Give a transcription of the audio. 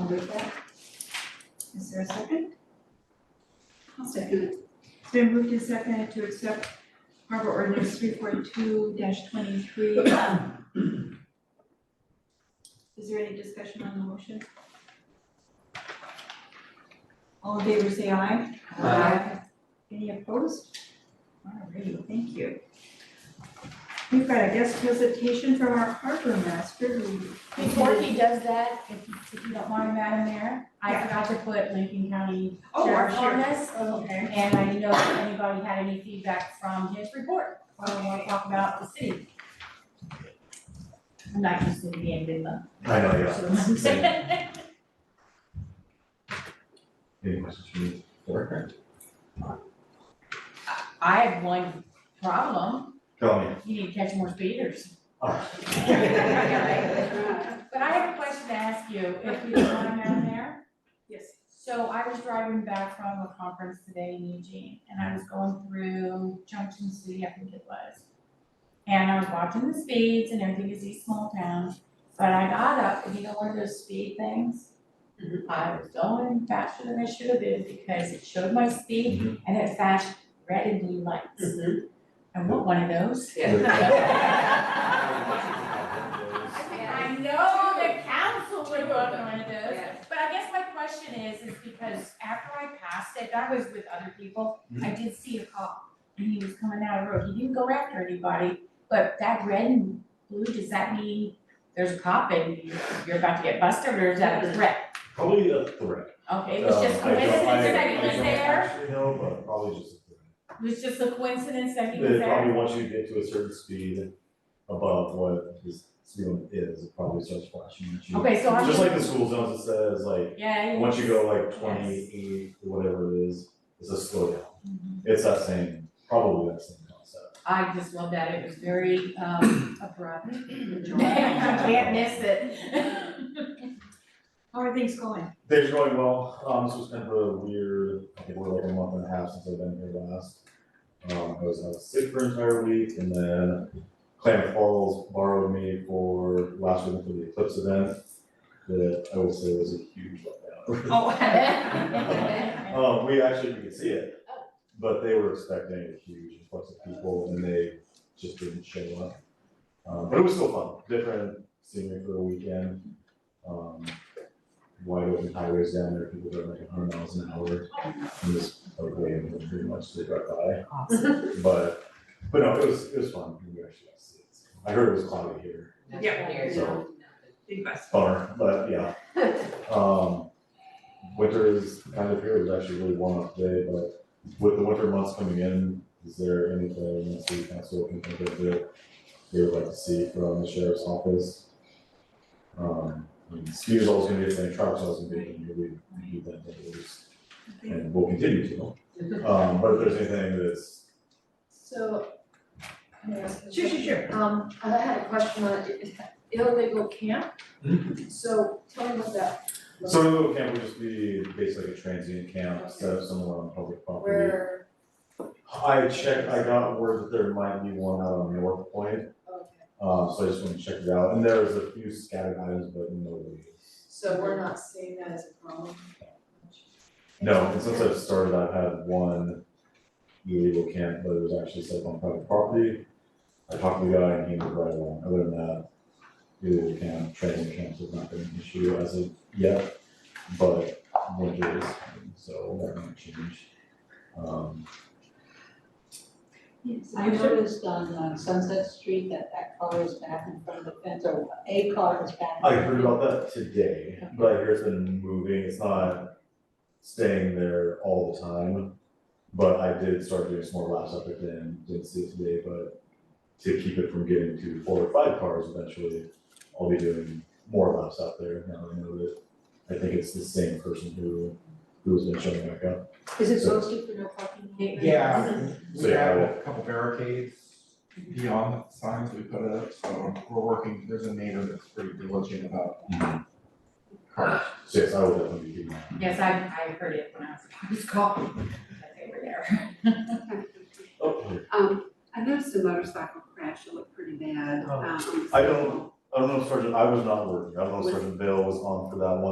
move that. Is there a second? I'll second it. It's been moved and seconded to accept harbor ordinance three four two twenty-three. Is there any discussion on the motion? All in favor, say aye. Aye. Any opposed? Alrighty, thank you. We've got a guest presentation from our harbor master who. Before he does that, if, if you don't mind, Madam Mayor, I forgot to put Lincoln County Oh, our Sheriff on sheriff. this. Oh, Okay. And I didn't know if anybody had any feedback from his report, or want to talk about the city. I'm not used to being in the. I know, yeah. yeah. Any questions for me? Correct. I have one problem, Tell me. you need to catch more speeders. Oh. But I have a question to ask you, if you don't mind, Madam Mayor? Yes. So I was driving back from a conference today in Eugene, and I was going through Junction City, I think it was. And I was watching the speeds and everything, is these small towns, but I got up, and you know, one of those speed things? I was going faster than I should have been because it showed my speed and it flashed red and blue lights. I want one of those. I know the council would want one of those. But I guess my question is, is because after I passed it, I was with other people, Mm-hmm. I did see a cop. And he was coming down the road, he didn't go after anybody, but that red and blue, does that mean there's a cop and you- you're about to get busted, or is that a threat? Probably a threat. Okay, it was just Um, I don't- coincidence I- that he I was don't there, actually know, but probably just a threat. it was just a coincidence that he was They probably there. once you to get to a certain speed above what his speed limit is, it probably starts flashing at you. Okay, so I'm Just just, like the school zones, it says like, yeah, yeah. once you go like twenty-eight, whatever it is, it's a slowdown. Mhm. It's that same, probably that same concept. I just love that, it was very, um, abrupt. You Can't miss it. How are things going? Things are going well, um, this was kind of a weird, I think we're like a month and a half since I've been here last. Um, I was out sick for an entire week and then Clam Falls borrowed me for last week for the Eclipse event. That I will say was a huge letdown. Um, we actually, we could see it, but they were expecting a huge influx of people and they just didn't show up. Um, but it was still fun, different scenery for the weekend. Um, wide open highways down there, people going like hundred miles an hour. And this, okay, and pretty much they drive by, but, but no, it was, it was fun, we actually got to see it. I heard it was cloudy here, so. Big bus. bummer, but yeah. Um, winter is kind of here, it's actually really warm up today, but with the winter months coming in, is there anything the city council can think of that they would like to see from the sheriff's office? Um, I mean, ski is always gonna be a thing, travel is always gonna be a thing, we need that, that is, and we'll continue to. Um, but if there's anything that's, So. can I ask a Sure, sure, question? sure. Um, I had a question on illegal camp. So tell me about that. so a little camp would just be basically a transient camp, set up somewhere on public property. Where, I checked, I got word that there might be one out on North Point, okay, uh, so I just wanted to check it out, and there was a few scattered items, but nobody. so we're not seeing that as a problem? No, and since I've started, I've had one illegal camp, but it was actually set up on private property. I talked to the guy and he was right along, other than that, illegal camp, training camps has not been an issue as of yet, but winter is, coming, so that might change. Um, Yes. I noticed on uh, Sunset Street that that car was back in front of the fence, or a car was back. in I front of heard the about that today, but I hear it's been moving, it's not staying there all the time. But I did start doing some more laps up it then, didn't see it today, but to keep it from getting to four or five cars eventually, I'll be doing more laps out there now that I know that. I think it's the same person who, who's been showing back up. fence. Is it posted for no parking? Yeah, we So, yeah, have a couple barricades beyond the signs we put up, so we're working, there's a neighbor that's pretty diligent about cars. So yes, I will definitely be keeping an eye. Yes, I, I heard it when I was, I was calling, that they were there. Oh, Um, I noticed a motorcycle crash, it looked pretty bad. Oh. um, I don't- I don't know if Sergeant, I was not working, I don't know if Sergeant Bill was on for that one.